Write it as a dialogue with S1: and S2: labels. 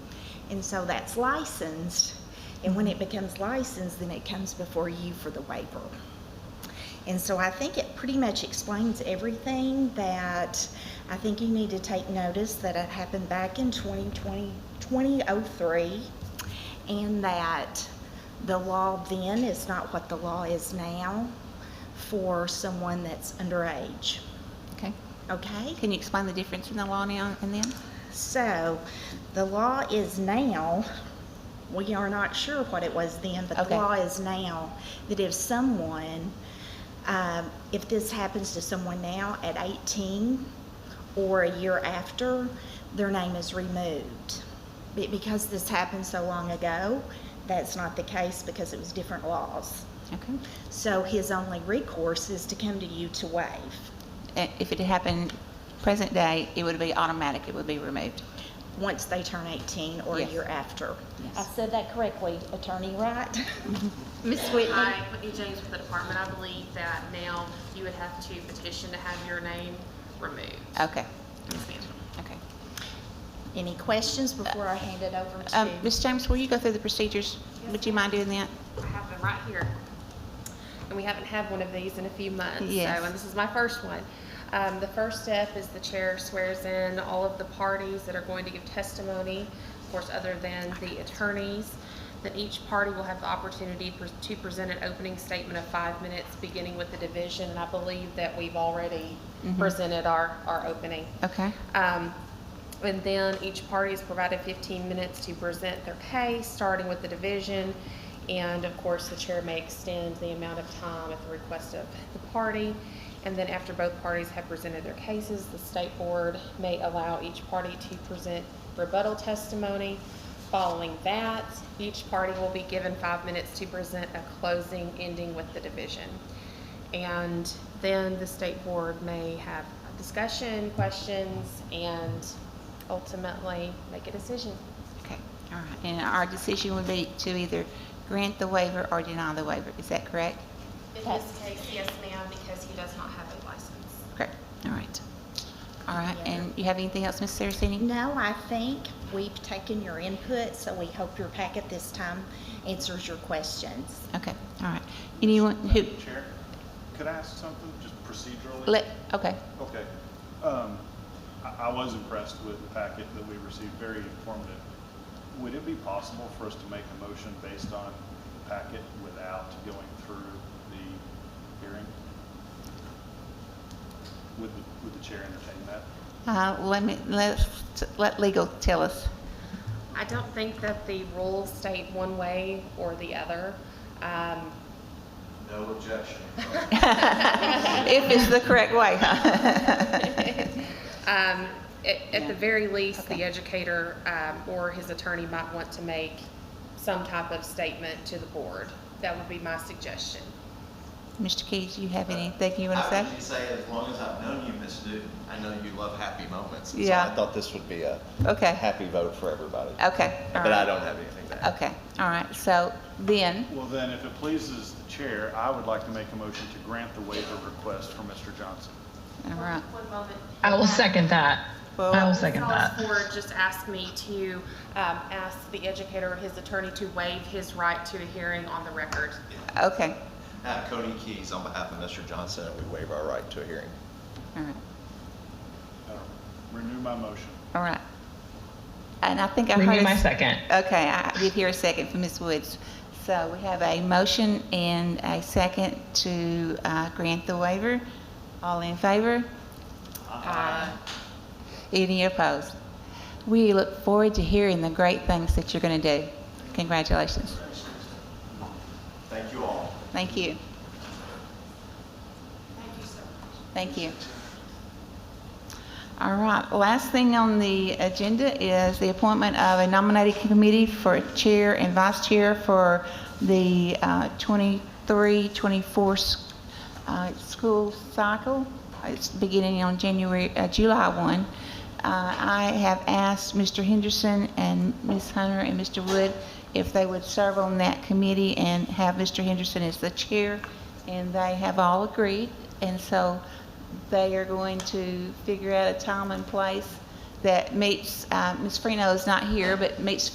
S1: And so that's licensed, and when it becomes licensed, then it comes before you for the waiver. And so I think it pretty much explains everything that I think you need to take notice that it happened back in 2020, 2003, and that the law then is not what the law is now for someone that's underage.
S2: Okay.
S1: Okay?
S2: Can you explain the difference in the law now and then?
S1: So the law is now, we are not sure what it was then, but the
S2: Okay.
S1: law is now that if someone, um, if this happens to someone now at 18 or a year after, their name is removed. Be- Because this happened so long ago, that's not the case because it was different laws.
S2: Okay.
S1: So his only recourse is to come to you to waive.
S2: Uh, If it had happened present day, it would be automatic, it would be removed.
S1: once they turn 18 or a
S2: Yes.
S1: year after.
S2: Yes.
S1: I said that correctly, Attorney Wright? Ms. Whitney?
S3: Hi, Whitney James with the department. I believe that now you would have to petition to have your name removed.
S2: Okay,
S3: Yes, ma'am.
S2: okay.
S1: Any questions before I hand it over
S2: Um,
S1: to?
S2: Ms. James, will you go through the procedures? Would you mind doing that?
S3: I have them right here. And we haven't had one of these in a few months.
S2: Yes.
S3: So, and this is my first one. Um, the first step is the chair swears in all of the parties that are going to give testimony, of course, other than the attorneys. Then each party will have the opportunity pres- to present an opening statement of five minutes, beginning with the division. And I believe that we've already presented our, our opening.
S2: Okay,
S3: Um, And then each party is provided 15 minutes to present their case, starting with the division. And of course, the chair may extend the amount of time at the request of the party. And then after both parties have presented their cases, the state board may allow each party to present rebuttal testimony. Following that, each party will be given five minutes to present a closing ending with the division. And then the state board may have a discussion, questions, and ultimately make a decision.
S2: okay, all right. And our decision would be to either grant the waiver or deny the waiver, is that correct?
S3: In this case, yes ma'am, because he does not have a license.
S2: Correct, all right. All right, and you have anything else, Ms. Saraceni?
S1: No, I think we've taken your input, so we hope your packet this time answers your questions.
S2: Okay, all right. Anyone who,
S4: Madam Chair, could I ask something, just procedurally?
S2: let, okay,
S4: Okay. Um, I, I was impressed with the packet that we received, very informative. Would it be possible for us to make a motion based on the packet without going through the hearing? Would, the- would the chair entertain that?
S2: uh, let me, let, let legal tell us.
S3: I don't think that the rules state one way or the other. Um,
S5: No objection.
S2: If it's the correct way, huh?
S3: um, At at
S2: Yeah.
S3: the very least,
S2: Okay.
S3: the educator um, or his attorney might want to make some type of statement to the board. That would be my suggestion.
S2: Mr. Keys, you have anything you want to
S5: I
S2: say?
S5: would just say, as long as I've known you, Miss Newton, I know you love happy moments. and so
S2: Yeah.
S5: I thought this would be a
S2: Okay.
S5: happy vote for everybody.
S2: Okay, all
S5: But I
S2: right.
S5: don't have anything to add.
S2: Okay, all right, so then,
S4: Well, then, if it pleases the chair, I would like to make a motion to grant the waiver request for Mr. Johnson.
S2: all right.
S3: One moment.
S6: I will second that. I will second that.
S3: Ms. Ford just asked me to um, ask the educator or his attorney to waive his right to a hearing on the record.
S2: Okay,
S5: Uh, Cody Keys, on behalf of Mr. Johnson, and we waive our right to a hearing.
S2: all right,
S4: Uh, Renew my motion.
S2: all right. And I think I heard.
S6: Renew
S2: a
S6: my
S2: s-
S6: second.
S2: Okay, I did hear a second from Ms. Woods. So we have a motion and a second to uh, grant the waiver. All in favor? Any opposed? We look forward to hearing the great things that you're going to do. Congratulations.
S5: Thank you all.
S2: Thank you. Thank you. All right, last thing on the agenda is the appointment of a nominating committee for chair and vice chair for the uh, 23, 24 s- uh, school cycle. It's beginning on January, uh, July 1. Uh, I have asked Mr. Henderson and Ms. Hunter and Mr. Wood if they would serve on that committee and have Mr. Henderson as the chair, and they have all agreed. And so they are going to figure out a time and place that meets, uh, Ms. Freno is not here, but meets